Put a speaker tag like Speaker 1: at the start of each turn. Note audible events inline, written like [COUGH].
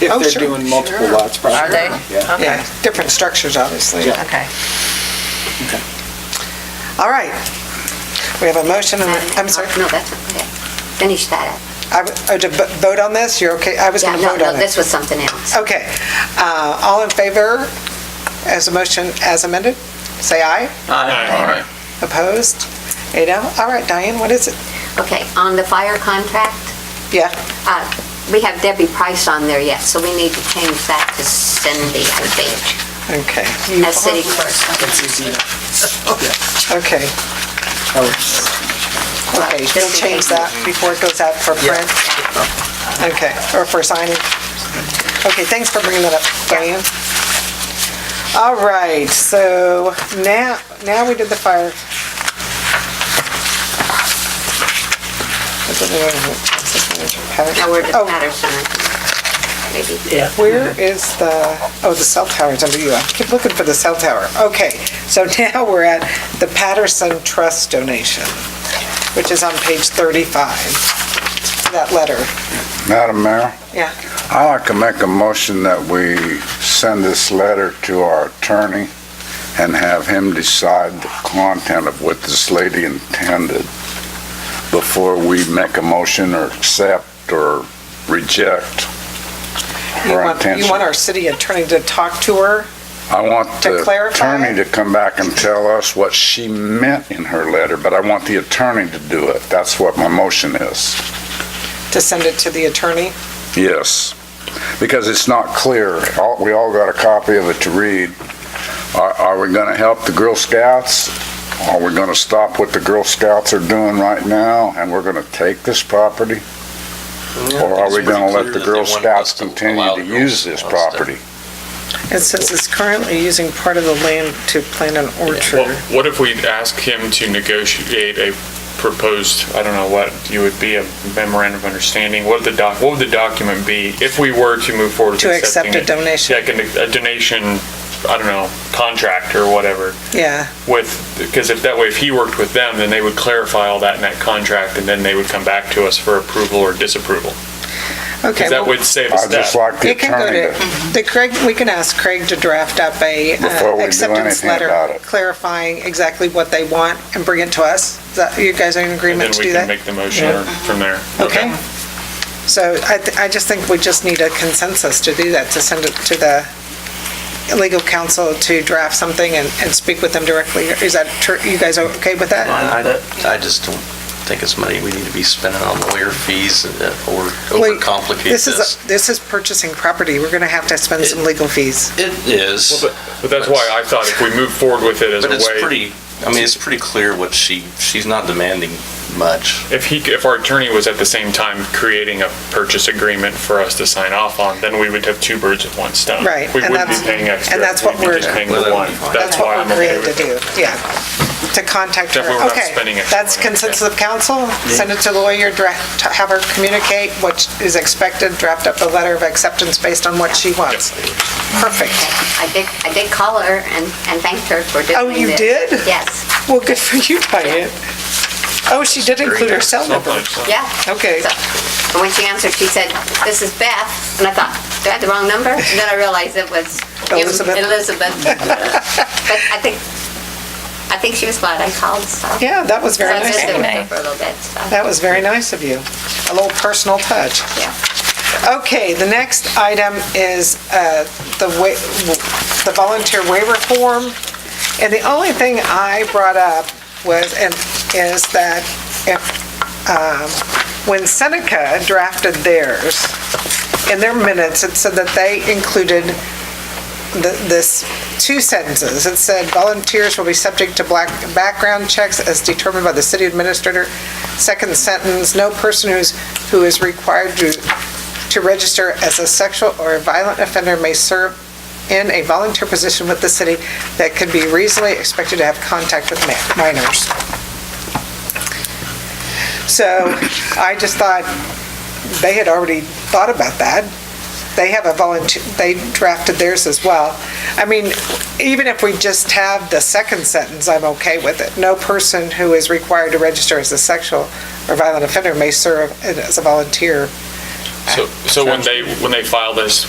Speaker 1: If
Speaker 2: Oh,
Speaker 1: they're
Speaker 2: sure.
Speaker 1: doing multiple
Speaker 2: Sure.
Speaker 1: lots,
Speaker 3: Are
Speaker 1: probably.
Speaker 3: they?
Speaker 1: Yeah.
Speaker 2: Yeah,
Speaker 3: Okay,
Speaker 2: different structures, obviously.
Speaker 1: Yeah.
Speaker 3: okay.
Speaker 1: Okay.
Speaker 2: All right. We have a motion, and, a- Uh, I'm sorry,
Speaker 4: No, that's, okay. Finish that up.
Speaker 2: I w- oh, to vo- vote on this, you're okay, I was
Speaker 4: Yeah,
Speaker 2: going to
Speaker 4: no,
Speaker 2: vote
Speaker 4: no,
Speaker 2: on it.
Speaker 4: this was something else.
Speaker 2: Okay, Uh, all in favor as a motion as amended, say aye.
Speaker 5: Aye.
Speaker 2: Opposed? Eight oh, all right, Diane, what is it?
Speaker 4: Okay, on the fire contract,
Speaker 2: Yeah,
Speaker 4: uh, we have Debbie Price on there yet, so we need to change that to Cindy, I think,
Speaker 2: okay,
Speaker 4: as city clerk.
Speaker 1: That's easy enough.
Speaker 2: okay,
Speaker 1: I would-
Speaker 2: okay,
Speaker 4: Just
Speaker 2: you'll
Speaker 4: in
Speaker 2: change
Speaker 4: case.
Speaker 2: that before it goes out for print? Okay, or for signing? Okay, thanks for bringing that up, Diane. All right, so now, now we did the fire.
Speaker 4: Now, where does
Speaker 2: Oh,
Speaker 4: Patterson? Maybe.
Speaker 2: Where is the, oh, the cell tower is under you. I keep looking for the cell tower. Okay, so [LAUGHS] now we're at the Patterson Trust donation, which is on page 35, that letter.
Speaker 6: Madam Mayor,
Speaker 2: Yeah.
Speaker 6: I'd like to make a motion that we send this letter to our attorney and have him decide the content of what this lady intended before we make a motion or accept or reject
Speaker 2: You
Speaker 6: her
Speaker 2: want, you
Speaker 6: intention.
Speaker 2: want our city attorney to talk to her?
Speaker 6: I want
Speaker 2: to
Speaker 6: the
Speaker 2: clarify?
Speaker 6: attorney to come back and tell us what she meant in her letter, but I want the attorney to do it. That's what my motion is.
Speaker 2: to send it to the attorney?
Speaker 6: Yes, because it's not clear. All- We all got a copy of it to read. Are- Are we going to help the Girl Scouts? Are we going to stop what the Girl Scouts are doing right now, and we're going to take this property? Or are we going to let the Girl Scouts continue to use this property?
Speaker 2: It says it's currently using part of the land to plant an
Speaker 5: Well,
Speaker 2: orchard.
Speaker 5: What if we ask him to negotiate a proposed, I don't know what, you would be a memorandum of understanding? What would the doc, what would the document be if we were to move forward with
Speaker 2: To accept
Speaker 5: accepting
Speaker 2: a
Speaker 5: it?
Speaker 2: donation,
Speaker 5: Like a a donation, I don't know, contract or whatever
Speaker 2: yeah.
Speaker 5: with, because if that way, if he worked with them, then they would clarify all that in that contract and then they would come back to us for approval or disapproval.
Speaker 2: Okay,
Speaker 5: Because that
Speaker 2: well,
Speaker 5: would save us
Speaker 6: I'd
Speaker 5: that.
Speaker 6: just like the
Speaker 2: it can go
Speaker 6: attorney to...
Speaker 2: to, the Craig, we can ask Craig to draft up a
Speaker 6: Before we
Speaker 2: uh,
Speaker 6: do
Speaker 2: acceptance
Speaker 6: anything
Speaker 2: letter
Speaker 6: about it.
Speaker 2: clarifying exactly what they want and bring it to us. Is that- You guys are in
Speaker 5: And then
Speaker 2: agreement to
Speaker 5: we
Speaker 2: do
Speaker 5: can
Speaker 2: that?
Speaker 5: make the motion or from there.
Speaker 2: Okay. So I, th- I just think we just need a consensus to do that, to send it to the legal counsel to draft something and, and speak with them directly. Is that, tr- you guys are okay with that?
Speaker 7: I Uh, I just don't think it's money we need to be spending on lawyer fees uh, or
Speaker 2: Wait,
Speaker 7: overcomplicate
Speaker 2: This
Speaker 7: this.
Speaker 2: is, this is purchasing property. We're going to have to spend some legal fees.
Speaker 7: It is,
Speaker 5: Well, But but that's why I thought if we move forward with it as a
Speaker 7: but
Speaker 5: way.
Speaker 7: it's pretty, I mean, it's pretty clear what she, she's not demanding much.
Speaker 5: If he, if our attorney was at the same time creating a purchase agreement for us to sign off on, then we would have two birds with one stone.
Speaker 2: Right,
Speaker 5: We
Speaker 2: and
Speaker 5: wouldn't be
Speaker 2: that's-
Speaker 5: paying extra.
Speaker 2: and that's what
Speaker 5: We'd be
Speaker 2: we're-
Speaker 5: just paying
Speaker 7: Well,
Speaker 5: the
Speaker 7: that would
Speaker 5: one.
Speaker 7: be fine.
Speaker 5: That's
Speaker 2: what
Speaker 5: why
Speaker 2: we're
Speaker 5: I'm okay
Speaker 2: created
Speaker 5: with
Speaker 2: to
Speaker 5: it.
Speaker 2: do, yeah. To contact her.
Speaker 5: Definitely we're not
Speaker 2: Okay,
Speaker 5: spending extra
Speaker 2: That's
Speaker 5: money, okay.
Speaker 2: consensus of council. Send it to the lawyer, draft, to have her communicate what is expected, draft up a letter of acceptance based on what she wants. Perfect.
Speaker 4: I did, I did call her and, and thanked her for doing this.
Speaker 2: Oh, you did?
Speaker 4: Yes,
Speaker 2: Well, good for you, Diane. Oh, she did include her cell number.
Speaker 4: yeah.
Speaker 2: Okay.
Speaker 4: So, And when she answered, she said, "This is Beth," and I thought, "Do I have the wrong number?" And then I realized it was it was
Speaker 2: Elizabeth. [LAUGHS]
Speaker 4: Elizabeth. But I think, I think she was glad I called, so.
Speaker 2: Yeah, that was
Speaker 4: So
Speaker 2: very
Speaker 4: I
Speaker 2: nice.
Speaker 4: visited
Speaker 2: of
Speaker 4: with
Speaker 2: you.
Speaker 4: her for a little bit, so,
Speaker 2: That was very nice of you. A little personal touch.
Speaker 4: yeah.
Speaker 2: Okay, the next item is uh, the wa- the volunteer waiver form. And the only thing I brought up was, and is that if, um, when Seneca drafted theirs, in their minutes, it said that they included th- this, two sentences. It said volunteers will be subject to black background checks as determined by the city administrator. Second sentence, no person who's, who is required to to register as a sexual or violent offender may serve in a volunteer position with the city that could be reasonably expected to have contact with ma- minors. So I just thought they had already thought about that. They have a volunteer, they drafted theirs as well. I mean, even if we just have the second sentence, I'm okay with it. No person who is required to register as a sexual or violent offender may serve as a volunteer
Speaker 5: So, so when they, when they file this,